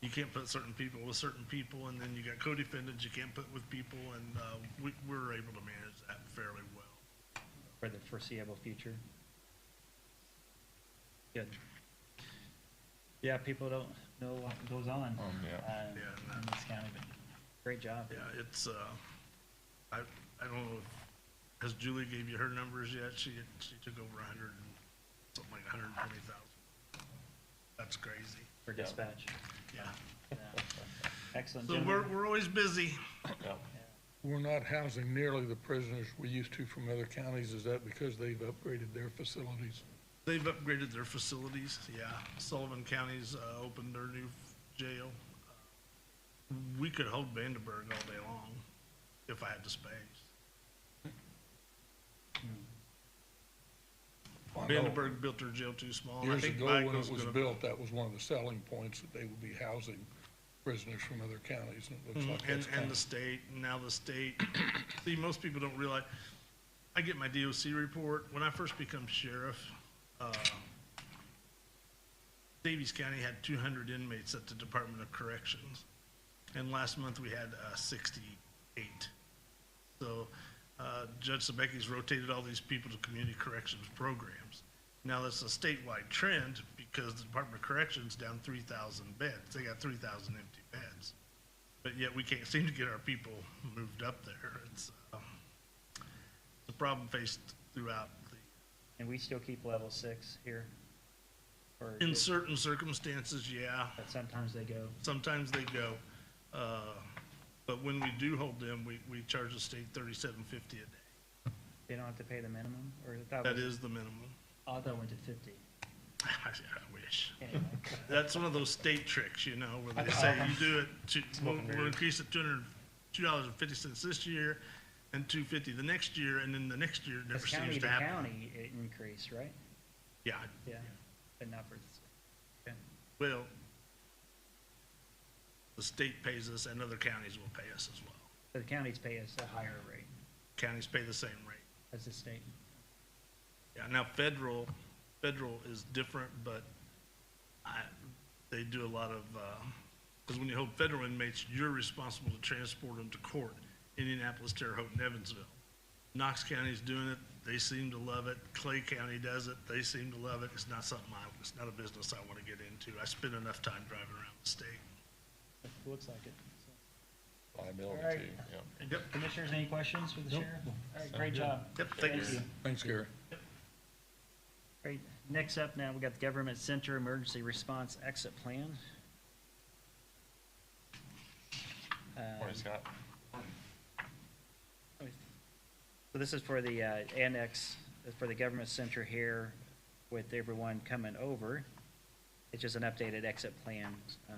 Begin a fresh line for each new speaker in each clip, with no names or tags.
you can't put certain people with certain people, and then you got co-defendants you can't put with people, and, uh, we, we're able to manage that fairly well.
for the foreseeable future. Good. Yeah, people don't know what goes on
Um, yeah.
uh,
Yeah.
in this county, but great job.
Yeah, it's, uh, I, I don't know, if- has Julie gave you her numbers yet? She, she took over a hundred and, something like a hundred and twenty thousand. That's crazy,
for
Yeah.
dispatch.
yeah.
Yeah. Excellent.
So
gentlemen.
we're, we're always busy.
We're not housing nearly the prisoners we used to from other counties. Is that because they've upgraded their facilities?
They've upgraded their facilities, yeah. Sullivan County's, uh, opened their new jail. We could hold Vandenberg all day long if I had the space.
I know
Vandenberg built their jail too small. and I
Years
think
ago, when
Bagley's
it was
gonna-
built, that was one of the selling points, that they would be housing prisoners from other counties, and it looks like that's
Mm-hmm. Hmm, And,
kind
and the
of.
state, and now the state, see, most people don't realize, I get my DOC report, when I first become sheriff, uh, Davies County had two hundred inmates at the Department of Corrections, and last month we had, uh, sixty-eight. So, uh, Judge Sabeckis rotated all these people to community corrections programs. Now, that's a statewide trend, because the Department of Corrections down three thousand beds, they got three thousand empty beds but yet we can't seem to get our people moved up there. It's, um, it's a problem faced throughout the,
And we still keep level six here. Or
in
is-
certain circumstances, yeah,
But sometimes they go,
sometimes they go. Uh, but when we do hold them, we, we charge the state thirty-seven fifty a day.
they don't have to pay the minimum, or that
That
was,
is the minimum.
oh, that went to fifty.
I wish.
Anyway,
That's one of those state tricks, you know, where they say you do it, to- we'll, we'll increase it two hundred, two dollars and fifty cents this year and two fifty the next year, and then the next year it never
Because county
seems
to
to happen.
county it increased, right?
Yeah,
Yeah, but not for, the state. Okay.
Well, the state pays us and other counties will pay us as well.
So the counties pay us a higher rate
Counties pay the same rate.
as the state.
Yeah, now federal, federal is different, but I, they do a lot of, because when you hold federal inmates, you're responsible to transport them to court. Indianapolis, Terre Haute, and Evansville. Knox County's doing it, they seem to love it. Clay County does it, they seem to love it. It's not something I, it's not a business I want to get into. I spend enough time driving around the state.
It looks like it. so.
Liability
Alright.
too, yeah.
Yep,
Commissioners, any questions for the sheriff? All right, great job.
yep, thank you.
Thanks, Gary.
Great. Next up now, we got the Government Center Emergency Response Exit Plan.
Morning, Scott.
So this is for the uh, annex, uh, for the Government Center here with everyone coming over. It's just an updated exit plan um,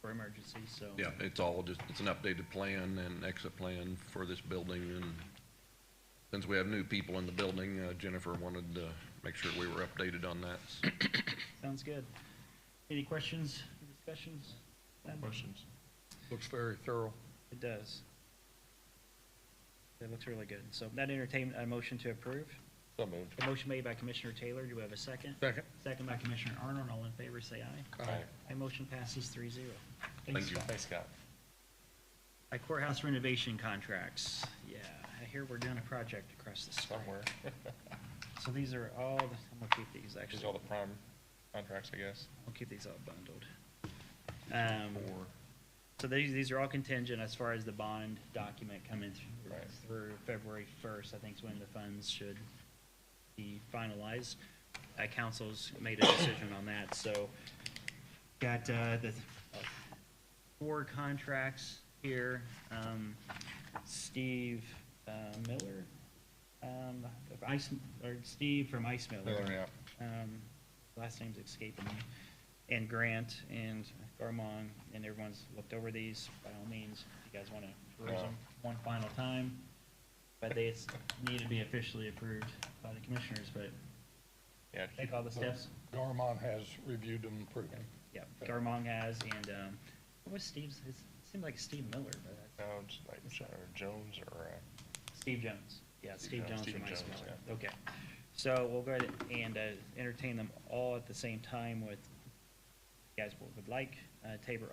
for emergencies, so.
Yeah, it's all just, it's an updated plan and exit plan for this building, and since we have new people in the building, uh, Jennifer wanted to make sure we were updated on that.
Sounds good. Any questions, discussions?
Questions?
Looks very thorough.
It does. It looks really good. So that entertain a motion to approve.
So moved.
A motion made by Commissioner Taylor. Do we have a second?
Second,
Second by Commissioner Arnold. All in favor, say aye.
Aye.
Aye, motion passes three zero.
Thank you.
Thanks, Scott.
By courthouse renovation contracts. Yeah, I hear we're doing a project across the spring.
Somewhere.
So these are all, the- I'm gonna keep these
These
actually.
are all the prime contracts, I guess.
I'll keep these all bundled. Um, so these, these are all contingent as far as the bond document coming through,
Right.
through February first, I think is when the funds should be finalized. Uh, council's made a decision on that, so got, uh, the uh, four contracts here. Um, Steve, uh, Miller, um, of Ice, or Steve from Ice
Miller, yeah.
um, last name's escaping me, and Grant and Garmon, and everyone's looked over these, by all means, if you guys wanna peruse them one final time. But they s- need to be officially approved by the commissioners, but
Yeah.
take all the steps,
Garmon has reviewed them and approved them.
yeah, Garmon has, and, um, what was Steve's, it seemed like Steve Miller, but, that's-
No, it's like, or Jones or, uh,
Steve Jones, yeah, Steve
Jones,
Jones from
Stephen
Ice
Jones,
Miller, okay. So we'll go ahead and uh, entertain them all at the same time with, you guys would like, uh, Tabor